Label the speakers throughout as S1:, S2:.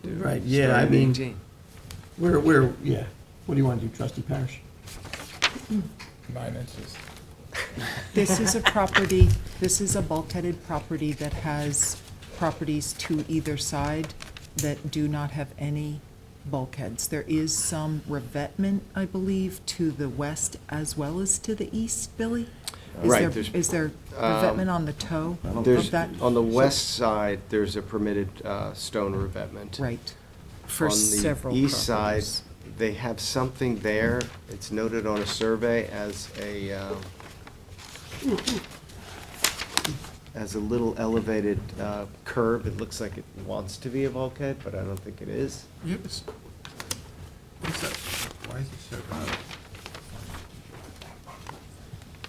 S1: to.
S2: Right, yeah,
S1: start
S2: I
S1: and
S2: mean-
S1: maintain.
S2: Where, where, yeah, what do you want to do, trustee Parish?
S3: nine inches.
S4: This is a property, this is a bulkheaded property that has properties to either side that do not have any bulkheads. There is some revetment, I believe, to the west as well as to the east, Billy? Is
S1: Right,
S4: there-
S1: there's- um,
S4: Is there revetment on the toe
S1: There's,
S4: of that?
S1: on the west side, there's a permitted uh, stone revetment.
S4: Right, for
S1: On the
S4: several
S1: east side,
S4: properties.
S1: They have something there, it's noted on a survey as a, um, as a little elevated uh, curb, it looks like it wants to be a bulkhead, but I don't think it is.
S3: Yep, it's, what's that, why is it so bad?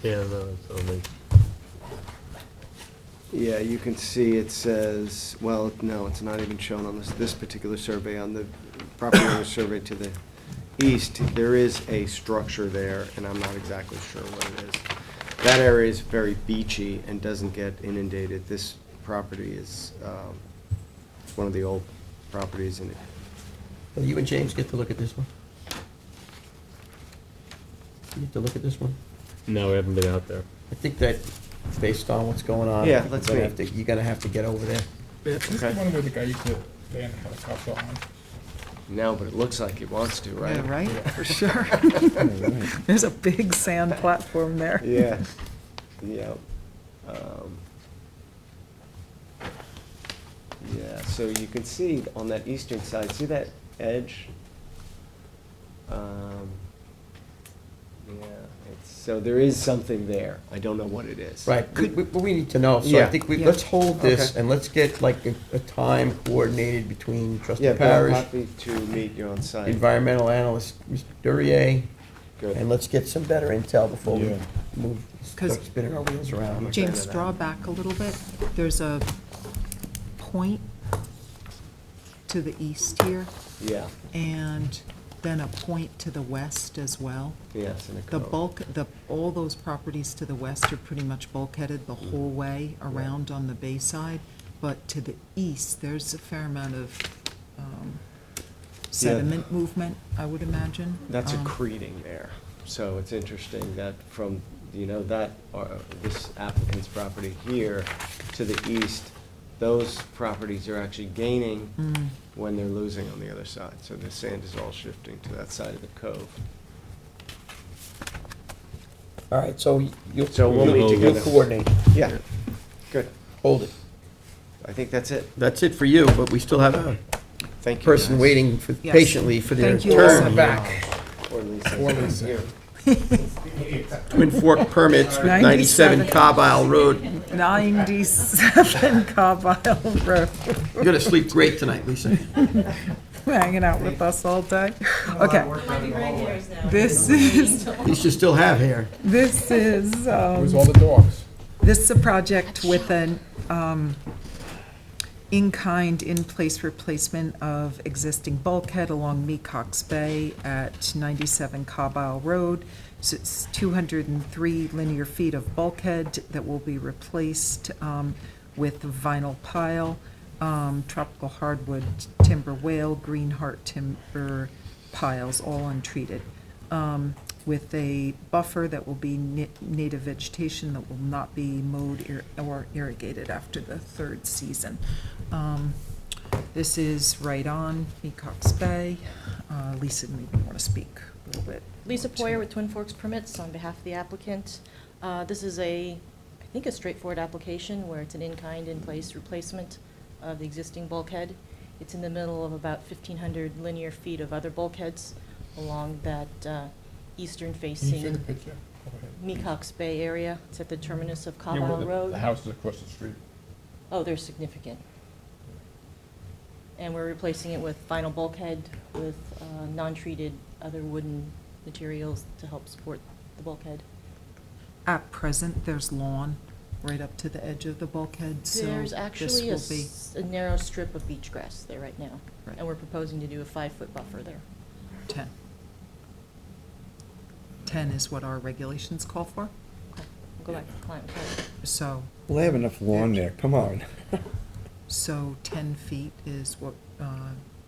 S5: Yeah, no, it's only,
S1: Yeah, you can see it says, well, no, it's not even shown on this, this particular survey, on the property owner survey to the east, there is a structure there, and I'm not exactly sure what it is. That area is very beachy and doesn't get inundated. This property is, um, it's one of the old properties, and it
S2: Well, You and James get to look at this one. You get to look at this one.
S5: no, we haven't been out there.
S2: I think that, based on what's going on.
S1: Yeah, let's
S2: you're gonna
S1: meet.
S2: have to- You're gonna have to get over there.
S3: This is the
S1: Okay.
S3: one where the guy used to land a helicopter on.
S1: no, but it looks like it wants to, right?
S4: Yeah, right, for sure. There's a big sand platform there.
S1: Yeah, yeah. Um, Yeah, so you can see on that eastern side, see that edge? Um, Yeah, it's, so there is something there. I don't know what it is.
S2: Right, we- we, but we need to know, so I
S1: Yeah.
S2: think we,
S4: Yeah.
S2: let's hold this
S1: Okay.
S2: and let's get like a, a time coordinated between trustee
S1: Yeah, but I'm
S2: Parish,
S1: happy to meet you on site.
S2: environmental analyst, Mr. Durier,
S1: Good.
S2: and let's get some better intel before we
S3: Yeah.
S2: move, start
S4: 'Cause-
S2: spinning our wheels around.
S4: James, draw back a little bit. There's a point to the east here,
S1: Yeah,
S4: and then a point to the west as well.
S1: yes, in a
S4: The
S1: cove.
S4: bulk, the, all those properties to the west are pretty much bulkheaded the whole way around on the bay side, but to the east, there's a fair amount of um, sediment movement, I would imagine.
S1: That's
S4: Um,
S1: accreting there. So it's interesting that from, you know, that, uh, this applicant's property here to the east, those properties are actually gaining
S4: Mm.
S1: when they're losing on the other side. So the sand is all shifting to that side of the cove.
S2: All right, so you- you'll,
S1: So we'll
S2: you'll-
S1: meet
S2: you'll
S1: together.
S2: coordinate,
S1: Yeah, good.
S2: hold it.
S1: I think that's it.
S2: That's it for you, but we still have a
S1: Thank you.
S2: person
S1: guys.
S2: waiting for-
S4: Yes.
S2: patiently for their
S4: Thank you all so
S2: turn back.
S1: Or Lisa.
S3: Or Lisa.
S1: Here.
S2: Twin Fork permits with 97
S4: 97.
S2: Cobb Isle Road.
S4: 97 Cobb Isle Road,
S2: You're gonna sleep great tonight, Lisa.
S4: hanging out with us all day. Okay,
S6: Regulars now.
S4: this is,
S2: At least you still have hair.
S4: this is,
S3: It
S4: um,
S3: was all the dogs.
S4: This is a project with an um, in-kind, in-place replacement of existing bulkhead along Mecox Bay at 97 Cobb Isle Road. So it's 203 linear feet of bulkhead that will be replaced um, with vinyl pile, um, tropical hardwood, timber whale, green heart timber piles, all untreated um, with a buffer that will be ni- native vegetation that will not be mowed ir- or irrigated after the third season. Um, This is right on Mecox Bay. Uh, Lisa, maybe you want to speak a little bit.
S6: Lisa Poyer with Twin Forks Permits on behalf of the applicant. Uh, This is a, I think, a straightforward application where it's an in-kind, in-place replacement of the existing bulkhead. It's in the middle of about 1,500 linear feet of other bulkheads along that uh,
S3: Can you see the
S6: eastern-facing
S3: picture? Over here.
S6: Mecox Bay area. It's at the terminus of Cobb
S3: Yeah, where
S6: Isle
S3: the-
S6: Road.
S3: The house is across the street.
S6: Oh, they're significant. And we're replacing it with vinyl bulkhead with uh, non-treated other wooden materials to help support the bulkhead.
S4: At present, there's lawn right up to the edge of the bulkhead, so
S6: There's
S4: this
S6: actually a
S4: will be.
S6: s- a narrow strip of beach grass there right now,
S4: Right.
S6: and we're proposing to do a five-foot buffer there.
S4: 10. 10 is what our regulations call for,
S6: Go back to the client. okay.
S4: so,
S7: Well, I have enough lawn there, come on.
S4: so 10 feet is what uh,